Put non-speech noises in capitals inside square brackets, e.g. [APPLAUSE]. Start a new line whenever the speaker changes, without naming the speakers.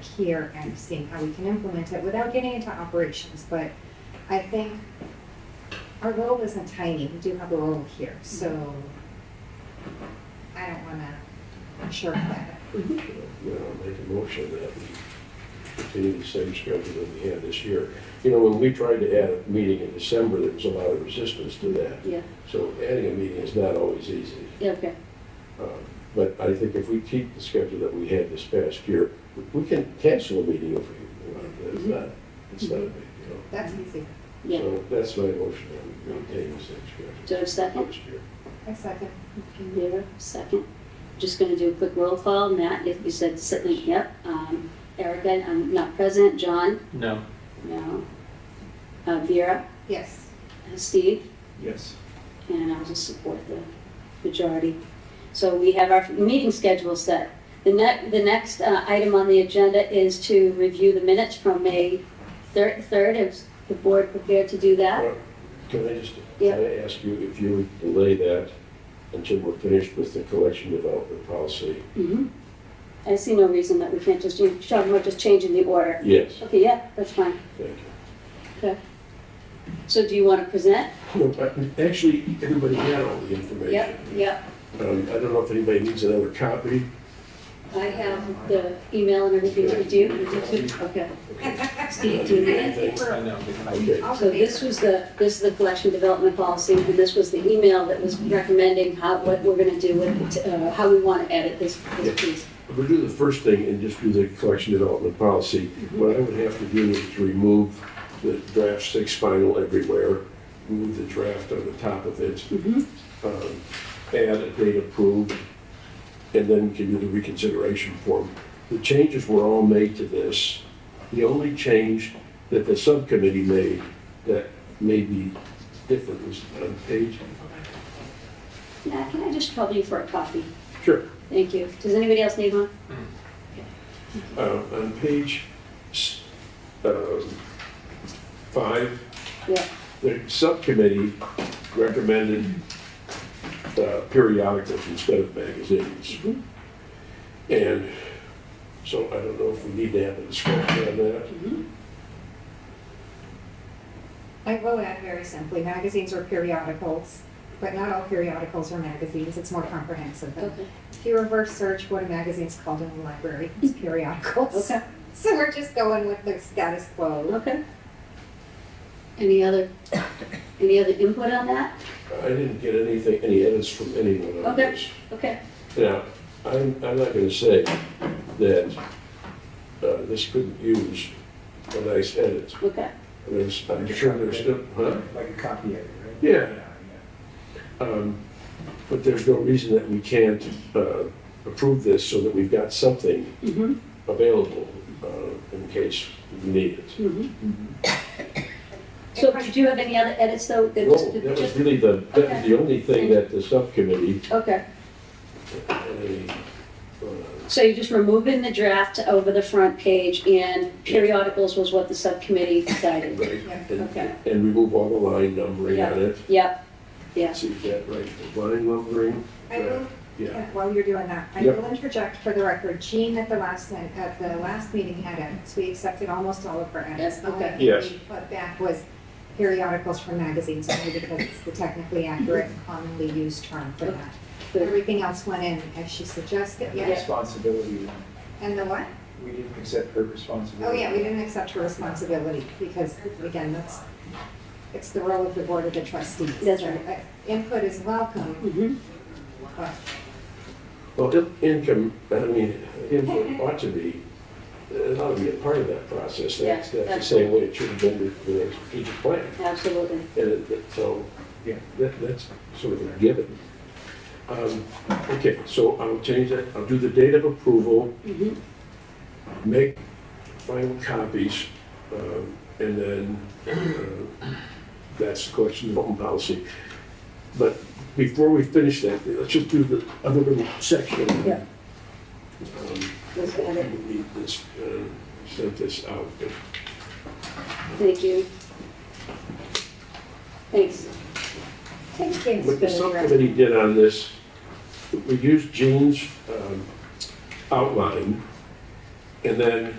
here and seeing how we can implement it without getting into operations, but I think our role isn't tiny, we do have a role here, so I don't wanna shirk that.
Mm-hmm.
You know, make a motion that we continue the same schedule that we had this year. You know, when we tried to add a meeting in December, there was a lot of resistance to that.
Yeah,
So adding a meeting is not always easy.
yeah, okay.
Um, But I think if we keep the schedule that we had this past year, we can cancel a meeting if we want. It's not, it's not a big deal.
That's easy.
Mm-hmm. Yeah.
So that's my motion, that we maintain the same schedule
Do I have a second?
this year.
I second.
In favor? Second. Just going to do a quick roll call. Matt, if you said sitting, yep. Um, Erica, I'm not present. John?
No.
No. Uh, Vera?
Yes,
Uh, Steve?
Yes.
and I'll just support the majority. So we have our meeting schedule set. The next, the next uh, item on the agenda is to review the minutes from May thir- 3rd. Is the board prepared to do that?
Well, Can I just, can
Yeah.
I ask you if you would delay that until we're finished with the collection development policy?
Mhm. I see no reason that we can't just, do- Sean, we're just changing the order.
Yes,
Okay, yeah, that's fine.
thank you.
So do you want to present?
No, but actually, everybody had all the information.
Yep, yep.
Um, I don't know if anybody needs another copy.
I have the email and everything to do. You do too? Okay. Steve, do you need it?
I know.
Okay,
I'll
So this was the, this is the collection development policy, and this was the email that was recommending how, what we're gonna do with, it, uh, how we wanna edit this, this piece.
we'll do the first thing and just do the collection development policy. What I would have to do is to remove the draft six final everywhere, move the draft on the top of it,
Mhm.
um, add a date approved, and then give you the reconsideration form. The changes were all made to this. The only change that the subcommittee made that may be different was on page.
Matt, can I just trouble you for a copy?
Sure.
Thank you. Does anybody else need one?
Uh, On page s- um, five,
Yeah,
the subcommittee recommended uh, periodicals instead of magazines.
Mhm.
And so I don't know if we need to have a discussion on that.
Mm-hmm.
I will add very simply, magazines are periodicals, but not all periodicals are magazines, it's more comprehensive than
okay,
If you reverse search what a magazine's called in the library,
[LAUGHS]
it's periodicals.
okay,
So we're just going with the status quo.
okay. Any other, any other input on that?
I didn't get anything, any edits from anyone on
Okay.
this.
Okay,
Now, I'm, I'm not gonna say that uh, this couldn't use a nice edit.
okay.
There's, I'm sure there's still, huh?
Like a copy editor, right?
Yeah. Um, But there's no reason that we can't uh, approve this so that we've got something
Mm-hmm,
available uh, in case we need it.
mm-hmm. So did you have any other edits though? that
No,
just-
that was
just-
really the, that was the only thing that the subcommittee,
Okay.
uh, uh,
So you're just removing the draft over the front page and periodicals was what the subcommittee decided?
right, and-
Okay.
and remove all the line numbering on it.
Yep, yes.
See that, right, the line numbering,
I will,
yeah.
yeah, while you're doing that, I
Yep.
will interject for the record, Jean at the last, night- at the last meeting had edits. We accepted almost all of her edits.
Yes,
The only
okay.
thing
Yes.
we Put back was periodicals from magazines, only because it's the technically accurate, commonly used term for that.
Good.
Everything else went in as she suggested,
The
yes.
Responsibility, one.
And the what?
we didn't accept her
Oh,
responsibility.
yeah, we didn't accept her responsibility because, again, that's, it's the role of the board of the trustees.
That's right.
Uh, Input is welcome,
Mhm.
but
Well, in- income, I mean, input ought to be, it ought to be a part of that process. That's,
Yeah,
that's the same way it should have been with the strategic plan.
Absolutely.
And it- it- so,
Yeah.
that, that's sort of a given. Um, Okay, so I'll change that, I'll do the date of approval,
Mhm. Mm-hmm.
make final copies, um, and then uh, that's the collection development policy. But before we finish that, let's just do the other little section.
Yeah.
Um,
Let's add it.
we Need this, uh, sent this out.
Thank you. Thanks.
take things
What the
good, right?
subcommittee did on this, we used Jean's um, outline, and then